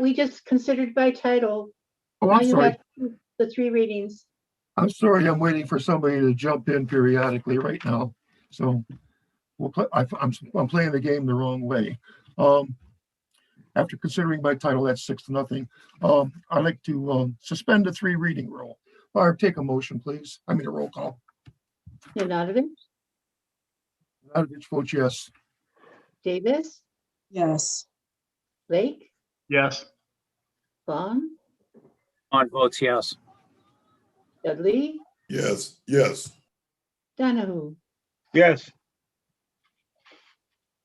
we just considered by title. Oh, Now I'm you sorry. have The three readings. I'm sorry. I'm waiting for somebody to jump in periodically right now. So we'll play, I, I'm, I'm playing the game the wrong way. Um, after considering by title, that's six to nothing. Um, I'd like to, um, suspend the three reading rule. Barb, take a motion, please. I mean, a roll call. Nanadovich, Nanavich votes yes. Davis, Yes, Lake, Yes. Vaughn, On votes yes. Dudley, Yes, yes, Donahue. Yes.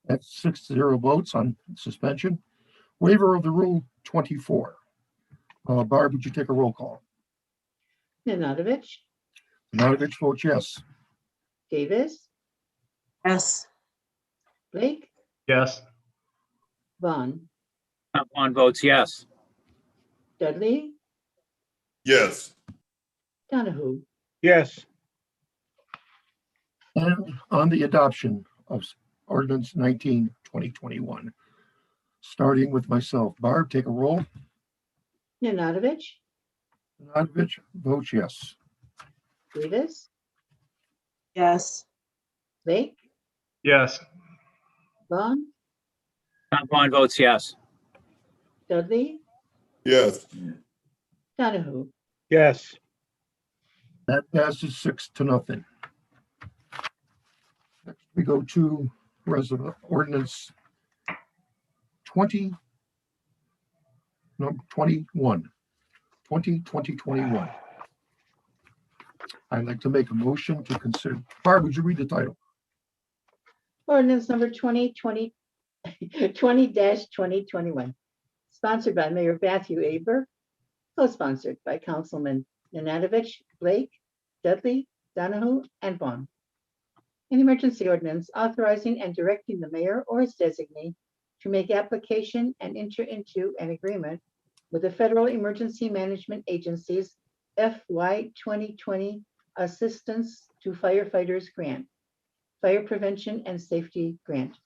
That's six to zero votes on suspension. Waiver of the rule twenty-four. Uh, Barb, would you take a roll call? Nanadovich, Nanavich votes yes. Davis, yes, Blake, Yes. Vaughn, On votes yes. Dudley, yes, Donahue. Yes. And on the adoption of ordinance 19, 2021. Starting with myself, Barb, take a roll. Nanadovich, Nanavich votes yes. Davis, yes, Lake, Yes. Vaughn, Tom Bond votes yes. Dudley, yes, Donahue. Yes. That passes six to nothing. Next, we go to resident ordinance 20, no, 21, 20, 2021. I'd like to make a motion to consider, Barb, would you read the title? Ordinance number 2020, 20-2021. Sponsored by Mayor Matthew Aber, co-sponsored by Councilman Nanadovich, Blake, Dudley, Donahue, and Vaughn. An emergency ordinance authorizing and directing the mayor or his designee to make application and enter into an agreement with the Federal Emergency Management Agency's FY 2020 Assistance to Firefighters Grant. Fire Prevention and Safety Grant.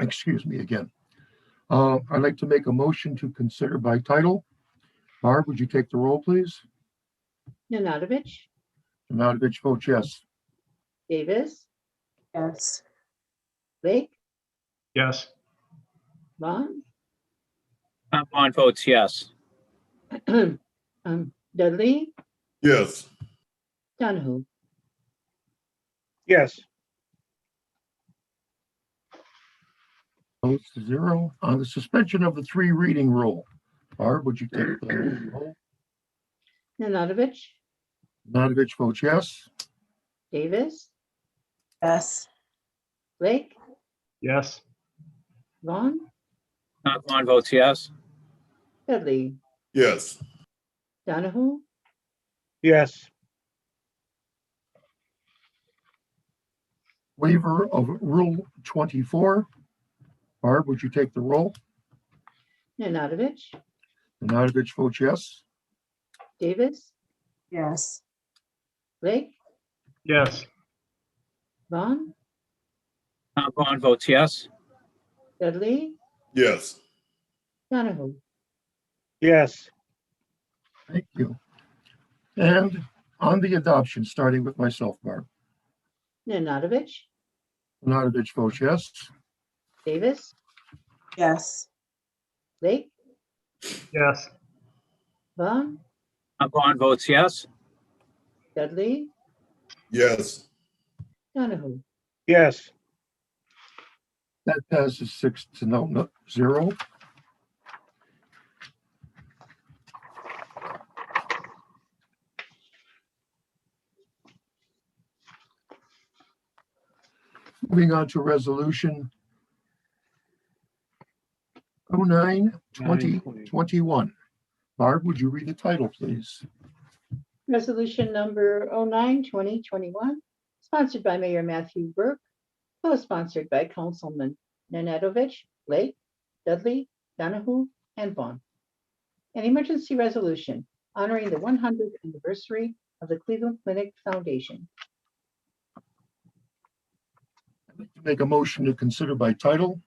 excuse me again. Uh, I'd like to make a motion to consider by title. Barb, would you take the roll, please? Nanadovich, Nanavich votes yes. Davis, yes, Blake, Yes. Vaughn, Tom Bond votes yes. um, Dudley, yes, Donahue. Yes. Votes to zero on the suspension of the three reading rule. Barb, would you take the roll? Nanadovich, Nanavich votes yes. Davis, yes, Blake, Yes. Vaughn, Tom Bond votes yes. Dudley, yes, Donahue, Yes. Waiver of Rule 24. Barb, would you take the roll? Nanadovich, Nanavich votes yes. Davis, yes, Blake, Yes. Vaughn, Tom Bond votes yes. Dudley, yes, Donahue. Yes. Thank you. And on the adoption, starting with myself, Barb. Nanadovich, Nanavich votes yes. Davis, yes, Blake, Yes. Vaughn, Tom Bond votes yes. Dudley, yes, Donahue. Yes. That passes six to no, no, zero. Moving on to resolution. Oh nine, twenty, twenty-one. Barb, would you read the title, please? Resolution number 09, 2021, sponsored by Mayor Matthew Burke, co-sponsored by Councilman Nanadovich, Blake, Dudley, Donahue, and Vaughn. An emergency resolution honoring the 100th anniversary of the Cleveland Clinic Foundation. I'd like to Make a motion to consider by title.